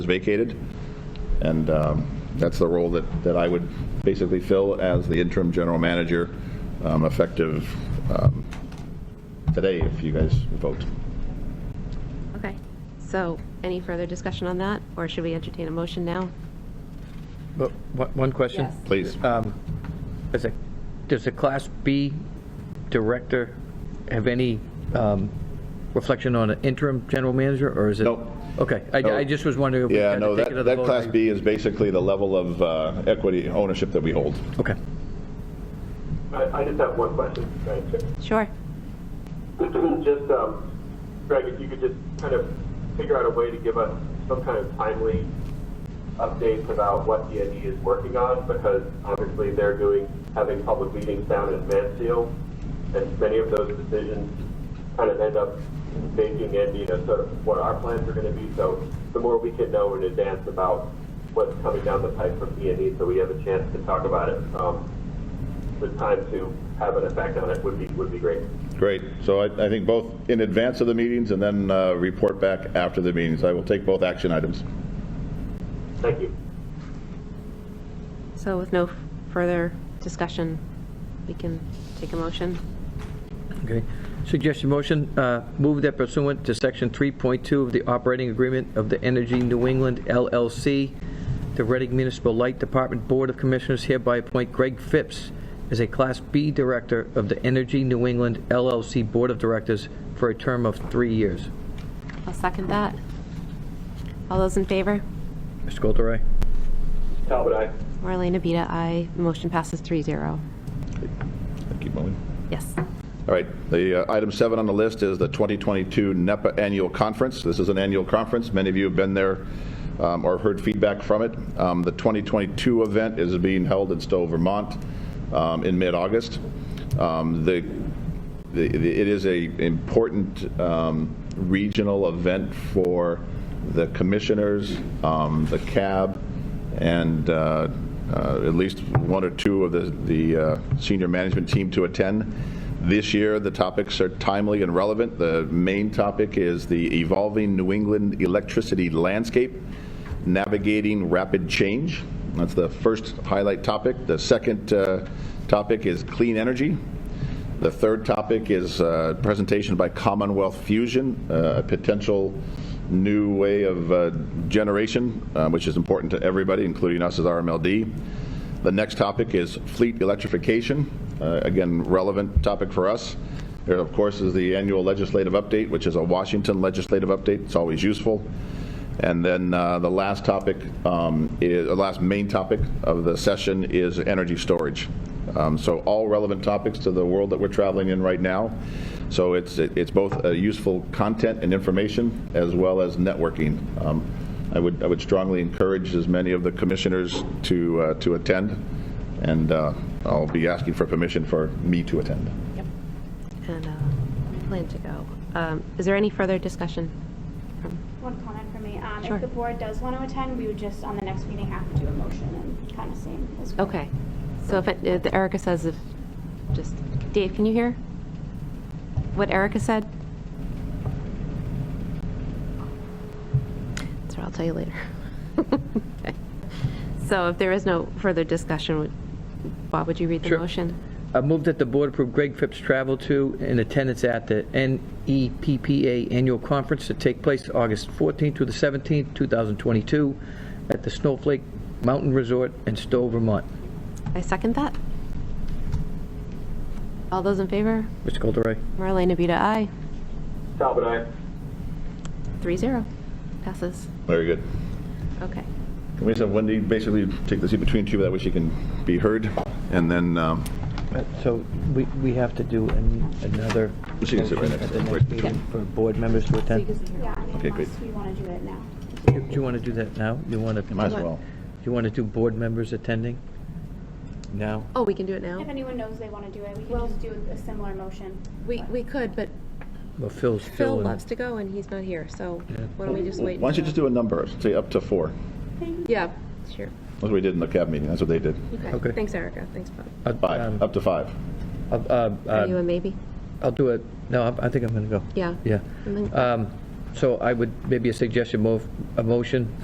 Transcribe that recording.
is vacated. And um, that's the role that, that I would basically fill as the interim general manager, um, effective um, today, if you guys vote. Okay, so any further discussion on that, or should we entertain a motion now? But one- One question. Yes. Please. Um, Does a, does a Class B director have any um, reflection on an interim general manager, or is it? Nope. Okay, I, I No. just was wondering if we Yeah, had no, to take that, it to the that vote. Class B is basically the level of uh, equity ownership that we hold. Okay. I I just have one question, Madam Chair. Sure. Just, um, Greg, if you could just kind of figure out a way to give us some kind of timely updates about what DND is working on, because obviously they're doing, having public meetings down in Mansfield, and many of those decisions kind of end up making Andy to sort of what our plans are going to be. So the more we can know in advance about what's coming down the pipe from DND, so we have a chance to talk about it, um, the time to have an effect on it would be, would be great. Great. So I, I think both in advance of the meetings and then uh, report back after the meetings. I will take both action items. Thank you. So with no further discussion, we can take a motion. Okay. Suggested motion, uh, move that pursuant to Section 3.2 of the operating agreement of the Energy New England LLC, the Reading Municipal Light Department Board of Commissioners hereby appoint Greg Phipps as a Class B Director of the Energy New England LLC Board of Directors for a term of three years. I'll second that. All those in favor? Mr. Caldera? Talbot, aye. Marlena Bita, aye. Motion passes 3-0. Thank you, Maureen. Yes. All right, the uh, item seven on the list is the 2022 NEPA Annual Conference. This is an annual conference. Many of you have been there um, or heard feedback from it. Um, The 2022 event is being held in Stowe, Vermont, um, in mid-August. Um, The the- the- It is a important um, regional event for the commissioners, um, the CAB, and uh, uh, at least one or two of the the uh, senior management team to attend. This year, the topics are timely and relevant. The main topic is the evolving New England electricity landscape, navigating rapid change. That's the first highlight topic. The second uh, topic is clean energy. The third topic is uh, presentation by Commonwealth Fusion, uh, a potential new way of uh, generation, uh, which is important to everybody, including us as RMLD. The next topic is fleet electrification, uh, again, relevant topic for us. There, of course, is the annual legislative update, which is a Washington legislative update. It's always useful. And then uh, the last topic, um, is- the last main topic of the session is energy storage. Um, So all relevant topics to the world that we're traveling in right now. So it's, it's both uh, useful content and information, as well as networking. Um, I would, I would strongly encourage as many of the commissioners to, uh, to attend, and uh, I'll be asking for permission for me to attend. And uh, we plan to go. Um, Is there any further discussion? One comment from me. Um, Sure. If the board does want to attend, we would just, on the next meeting, have to do a motion and kind of same as. we- Okay. So if it- if Erica says if, just, Dave, can you hear what Erica said? That's what I'll tell you later. Okay. So if there is no further discussion, would- Bob, would you read the Sure. motion? I move that the board approve Greg Phipps' travel to and attendance at the E NEPPA Annual Conference to take place August 14th through the 17th, 2022, at the Snowflake Mountain Resort in Stowe, Vermont. I second that. All those in favor? Mr. Caldera? Marlena Beta, aye. Talbot, aye. 3-0. Passes. Very good. Okay. Can we just have Wendy basically take the seat between two, that way she can be heard? And then, um, Uh, So we, we have to do another She can sit right motion next at to the her. next meeting for board members to attend. Yeah, and Okay, great. unless we want to do it now. Do you want to do that now? You want to? might as well. You want to do board members attending? Now? Oh, we can do it now? If anyone knows they want to do it, we can just do a similar motion. We, but- we could, but Well, Phil's Phil still in. loves to go and he's not here, so why don't we just Why wait? don't you just do a number, say up to four? Yeah, sure. That's what we did in the cab meeting, that's what they did. Okay. Okay. Thanks, Erica. Thanks, Bob. Uh, Five, um, up to five. uh, uh, Are you uh, a maybe? I'll do it, no, I I think I'm going to go. Yeah. Yeah. I think- Um, So I would, maybe a suggestion, move, a motion